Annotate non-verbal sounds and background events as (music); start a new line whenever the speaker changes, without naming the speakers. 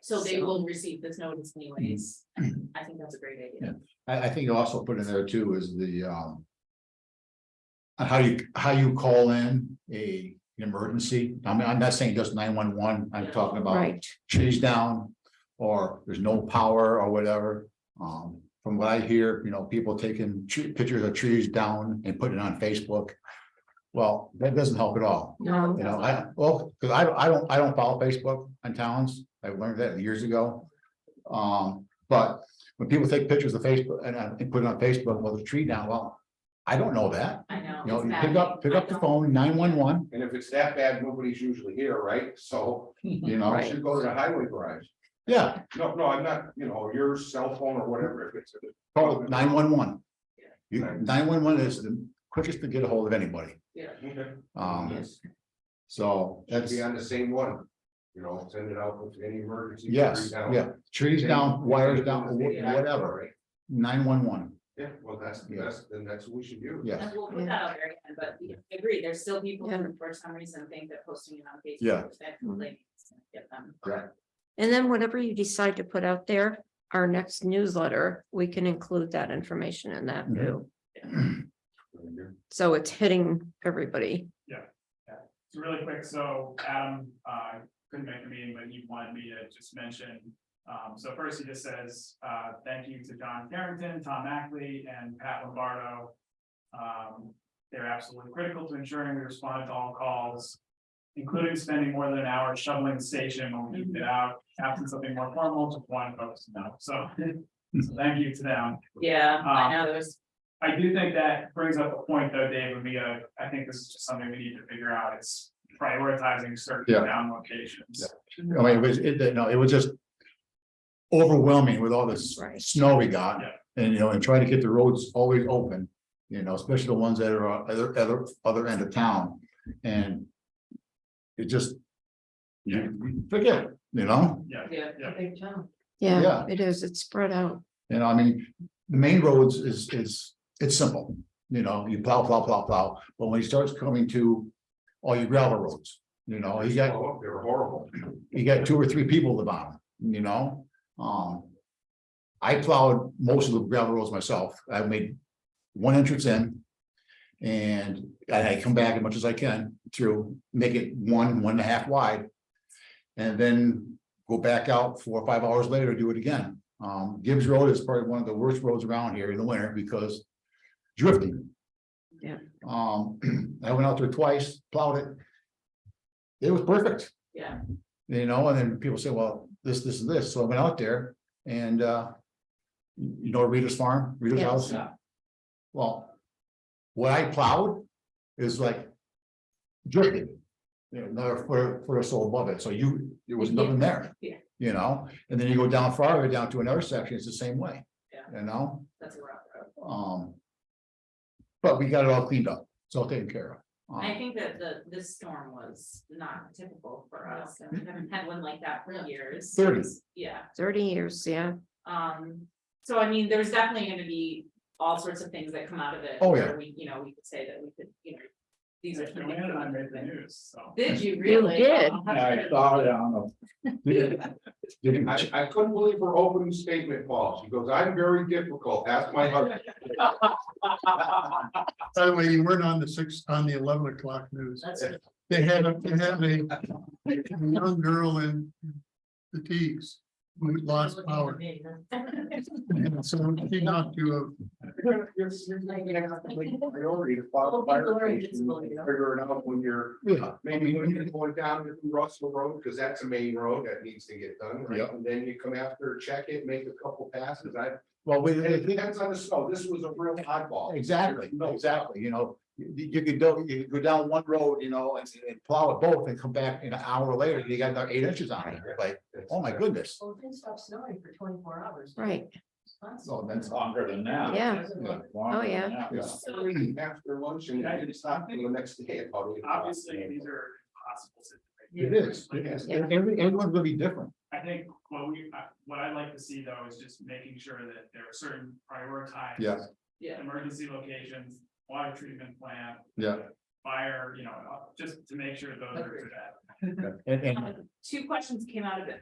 So they
So-
will receive this notice anyways.
Mm-hmm.
I think that's a great idea.
I, I think you also put in there too is the, um. on how you, how you call in a, an emergency, I mean, I'm not saying just nine one one, I'm talking about
Right,
trees down. Or there's no power or whatever, um, from what I hear, you know, people taking tre- pictures of trees down and putting it on Facebook. Well, that doesn't help at all.
no,
You know, I, well, because I, don't- I don't, I don't follow Facebook on towns, I learned that years ago. Um, but when people take pictures of Facebook and, uh, and put it on Facebook, well, the tree down, well, I don't know that.
I know.
You know,
it's
you pick
bad.
up, pick up
I
the
know.
phone, nine one one,
And if it's that bad, nobody's usually here, right? So
you
I
know,
should go to the highway garage.
yeah,
No, no, I'm not, you know, your cell phone or whatever, if it's,
call nine one one.
Yeah.
You, nine one one is the quickest to get a hold of anybody,
should
um,
Yes.
so that's,
be on the same one. You know, send it out with any emergency.
yes,
three down.
yeah, trees down, wires down, wha-
Yeah,
whatever,
right.
nine one one,
Yeah, well, that's,
Yeah.
that's, then that's what we should do.
yes.
And we'll put that out there again, but we agree, there's still people who for some reason think that posting it on Facebook.
Yeah.
is that completely gonna Get them.
and then whatever you decide to put out there, our next newsletter, we can include that information in that
Mhm.
too. So it's hitting everybody.
So really quick, so Adam, uh, couldn't make the meeting, but he wanted me to just mention. Um, so first he just says, uh, thank you to John Carrington, Tom Ackley, and Pat Lombardo. Um, they're absolutely critical to ensuring we respond to all calls. Including spending more than an hour shoveling the station when we get out, absent something more formal, just wanted folks to know, so. (laughs) so Thank you to them.
Yeah, I
Um,
know, there's,
I do think that brings up a point though, Dave, and we, uh, I think this is just something we need to figure out, is prioritizing certain
Yeah.
down locations.
I mean, it was, it, no, it was just. Overwhelming with all this
Right.
snow we got,
Yeah.
and you know, and trying to get the roads always open. You know, especially the ones that are on other, other, other end of town, and. It just. You forget, you know,
Yeah,
yeah.
Yeah.
Big town.
Yeah,
Yeah.
it is. It's spread out.
and I mean, the main roads is, is, it's simple. You know, you plow, plow, plow, plow, but when he starts coming to all your gravel roads, you know, he got
Oh, they're horrible.
you got two or three people at the bottom, you know, um. I plowed most of the gravel roads myself, I made one entrance in. And I I come back as much as I can through, make it one, one and a half wide. And then go back out four or five hours later, do it again. Um, Gibbs Road is probably one of the worst roads around here in the winter because drifting.
Yeah.
Um, (clears throat) I went out there twice, plowed it. It was perfect.
Yeah.
You know, and then people say, well, this, this, and this, so I went out there and, uh. You know Rita's farm, Rita's
Yes.
house?
Yeah.
Well. What I plowed is like. Drifted. You know, another foot, foot or so above it, so you, there was nothing there.
Yeah.
You know, and then you go down farther, down to another section, it's the same way.
Yeah.
You know,
That's a rough road.
um. But we got it all cleaned up, it's all taken care of.
I
Um,
think that the, this storm was not typical for us, and we haven't had one like that for years.
Thirty.
Yeah,
Thirty years, yeah.
um, so I mean, there's definitely gonna be all sorts of things that come out of it.
Oh,
where
yeah.
We, you know, we could say that we could, you know, these are.
And we had it on the
things-
news, so.
Did you really?
did.
Oh, how
I
good.
saw it, I don't (laughs) know. Did- did-
I, I couldn't believe her opening statement, Paul. She goes, I'm very difficult. Ask my husband.
By the way, you weren't on the six, on the eleven o'clock news.
That's
They had, a they had a a young girl in fatigues who lost power. And so she knocked you
You're- you're- you're making it a complete Priority to follow fire station, figure it out when you're,
Yeah,
maybe when you're going down to Russell Road, because that's the main road that needs to get done. right?
Yeah.
And then you come after, check it, make a couple passes. I,
well, we,
and it depends on the snow. This was a real oddball.
Exactly,
No.
exactly, you know, you, you could go, you could go down one road, you know, and, and plow it both and come back in an hour later, you got another eight inches on it, like, oh my goodness.
Well, it didn't stop snowing for twenty-four hours.
Right,
So that's,
longer than that.
yeah. Oh, yeah.
After lunch and I didn't stop till the next day. about eight o'clock.
Obviously, these are impossible situations.
it is, it is, And every, everyone's gonna be different,
I think what we, I- what I'd like to see though is just making sure that there are certain prioritized.
Yeah.
Yeah.
Emergency locations, water treatment plant,
yeah,
fire, you know, uh, just to make sure those are
Agreed.
that.
and, and,
Um, Two questions came out of it.